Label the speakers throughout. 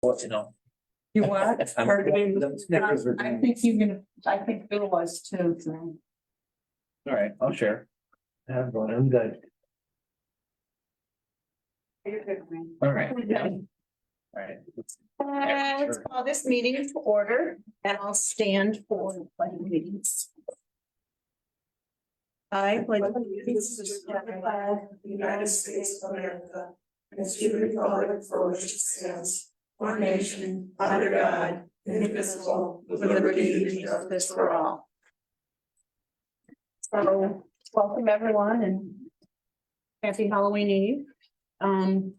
Speaker 1: What, you know?
Speaker 2: You what?
Speaker 1: I'm-
Speaker 2: Pardon me?
Speaker 1: the Snickers are
Speaker 2: I
Speaker 1: doing-
Speaker 2: think you can, I think Bill was too. so.
Speaker 1: All right, I'll share. I have one, I'm good.
Speaker 2: You're good, man.
Speaker 1: All right. yeah.
Speaker 3: Okay.
Speaker 1: All right.
Speaker 3: Uh, Let's call this meeting to order and I'll stand for the pledge of allegiance. I pledge allegiance to the flag of the United States of America and to the republic for which it stands, one nation, under God, indivisible, with liberty and justice for all. So, welcome everyone and happy Halloween Eve. Um,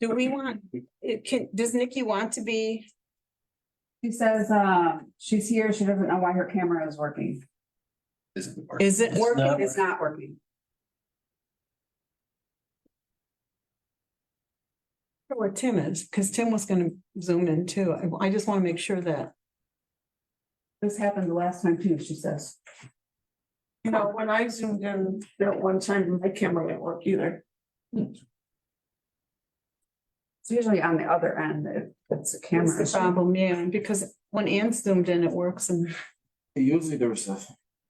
Speaker 3: do we want it can, does Nikki want to be,
Speaker 4: She says, uh, she's here, she doesn't know why her camera is working.
Speaker 1: This-
Speaker 3: is it
Speaker 1: It's
Speaker 3: working?
Speaker 1: not-
Speaker 4: It's not working.
Speaker 3: Where Tim is, because Tim was gonna zoom in too. I, I just want to make sure that.
Speaker 4: This happened the last time too, she says.
Speaker 2: You know, when I zoomed in that one time, my camera didn't work either.
Speaker 4: It's usually on the other end, if it's a camera.
Speaker 3: That's the problem, yeah, because when Ann zoomed in, it works and
Speaker 5: Usually there's a.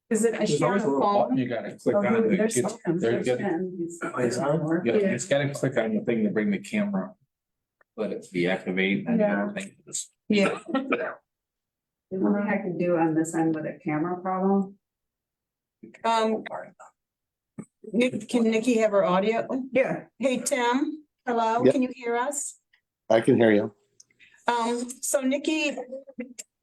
Speaker 3: is it, is
Speaker 5: There's
Speaker 3: she on
Speaker 5: always
Speaker 3: the
Speaker 5: a little
Speaker 3: phone?
Speaker 5: button You gotta click
Speaker 3: Oh,
Speaker 5: on
Speaker 3: who-
Speaker 5: it.
Speaker 3: there's
Speaker 5: It's-
Speaker 3: Tim.
Speaker 5: there you go.
Speaker 1: It's on?
Speaker 5: Yeah, you just gotta click on the thing to bring the camera. Let it deactivate and
Speaker 2: Yeah.
Speaker 5: everything. Just-
Speaker 3: Yeah,
Speaker 4: The only thing I can do on this end with a camera problem.
Speaker 3: um. Nick- Can Nikki have her audio?
Speaker 4: Yeah.
Speaker 3: Hey, Tim, hello,
Speaker 6: Yeah.
Speaker 3: can you hear us?
Speaker 6: I can hear you.
Speaker 3: Um, so Nikki.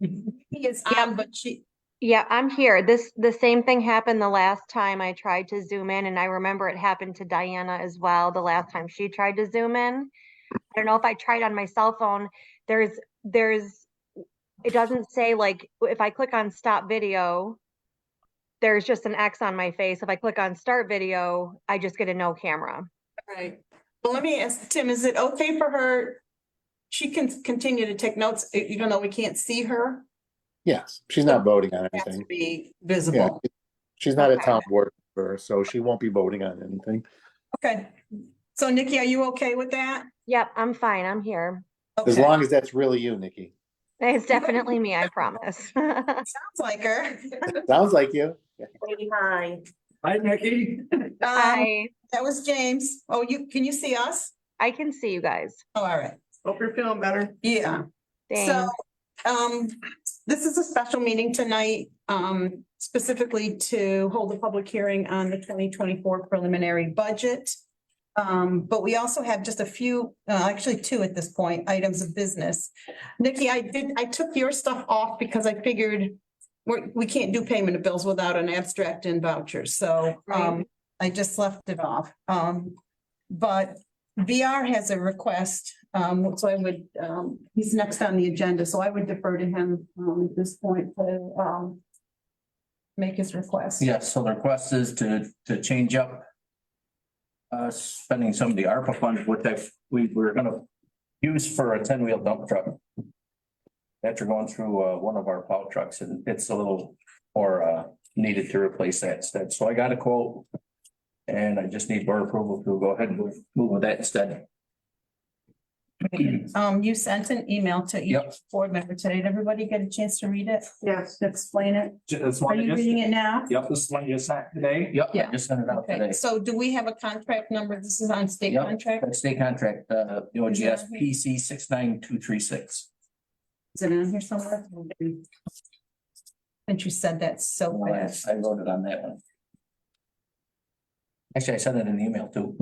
Speaker 3: Nikki is on, but she,
Speaker 7: Yeah, I'm here. This, the same thing happened the last time I tried to zoom in and I remember it happened to Diana as well, the last time she tried to zoom in. I don't know if I tried on my cell phone. There's, there's, it doesn't say like, if I click on stop video, there's just an X on my face. If I click on start video, I just get a no camera.
Speaker 3: Right. Well, let me ask Tim, is it okay for her? She can continue to take notes, e- even though we can't see her.
Speaker 6: Yes, she's not voting on
Speaker 3: It Has to
Speaker 6: anything.
Speaker 3: be
Speaker 6: Yeah,
Speaker 3: visible.
Speaker 6: she's not a
Speaker 3: Okay.
Speaker 6: town board member, so she won't be voting on anything.
Speaker 3: Okay. So Nikki, are you okay with that?
Speaker 7: Yep, I'm fine. I'm here.
Speaker 6: As
Speaker 3: Okay.
Speaker 6: long as that's really you, Nikki.
Speaker 7: It's definitely me, I promise.
Speaker 3: Sounds like her.
Speaker 6: Sounds like you.
Speaker 3: Hi.
Speaker 1: Hi, Nikki.
Speaker 7: Hi,
Speaker 3: Um, That was James. Oh, you, can you see us?
Speaker 7: I can see you guys.
Speaker 3: Oh, all right.
Speaker 2: Hope you're feeling better.
Speaker 3: Yeah.
Speaker 7: Thanks.
Speaker 3: So, um, this is a special meeting tonight, um, specifically to hold a public hearing on the twenty twenty-four preliminary budget. Um, but we also have just a few, uh, actually two at this point, items of business. Nikki, I did, I took your stuff off because I figured we're, we can't do payment of bills without an abstract and vouchers, so, um, I just left it off. Um, but VR has a request, um, so I would, um, he's next on the agenda, so I would defer to him, um, at this point to, um, make his request.
Speaker 1: Yes, so the request is to, to change up uh, spending some of the ARPA funds, what that we were gonna use for a ten-wheel dump truck. After going through, uh, one of our plow trucks and it's a little, or, uh, needed to replace that instead. So I got a quote. And I just need board approval to go ahead and move, move with that instead.
Speaker 3: Um, you sent an email to each
Speaker 1: Yep.
Speaker 3: board member today. Did everybody get a chance to read it?
Speaker 2: Yes.
Speaker 3: To explain it?
Speaker 5: Just
Speaker 3: Are
Speaker 5: one
Speaker 3: you
Speaker 5: just,
Speaker 3: reading it now?
Speaker 5: yep, this one you sent today.
Speaker 1: Yep, I
Speaker 3: Yeah.
Speaker 1: just sent it out
Speaker 3: Okay,
Speaker 1: today.
Speaker 3: so do we have a contract number? This is on state
Speaker 1: Yep.
Speaker 3: contract?
Speaker 1: State contract, uh, OGS PC six nine two three six.
Speaker 3: Is it on here somewhere? Since you said that so
Speaker 1: I
Speaker 3: fast.
Speaker 1: I wrote it on that one. Actually, I sent it in the email too.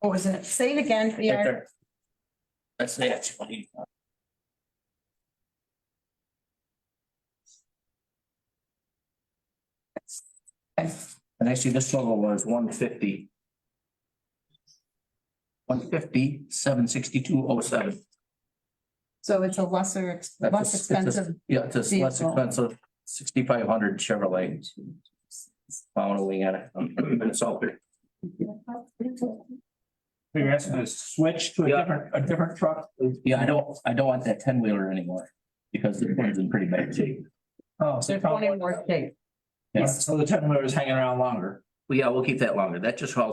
Speaker 3: What was it? Say it again.
Speaker 1: Right
Speaker 3: VR.
Speaker 1: there. That's the actual email.
Speaker 3: Okay.
Speaker 1: And actually, this total was one fifty. One fifty, seven sixty-two oh seven.
Speaker 3: So it's a lesser, ex-
Speaker 1: That's a-
Speaker 3: less
Speaker 1: it's a-
Speaker 3: expensive.
Speaker 1: Yeah, it's a less
Speaker 3: Vehicle.
Speaker 1: expensive sixty-five hundred Chevrolet. Following at it, um, Minnesota.
Speaker 5: You're asking to switch to a
Speaker 1: Yeah.
Speaker 5: different, a different truck?
Speaker 1: Yeah, I don't, I don't want that ten wheeler anymore because the one's in pretty bad shape.
Speaker 5: Oh, so
Speaker 3: They're
Speaker 5: you found
Speaker 3: twenty
Speaker 5: one.
Speaker 3: more shape.
Speaker 5: Yeah, So the ten wheeler is hanging around longer.
Speaker 1: Well, yeah, we'll keep that longer. That just helps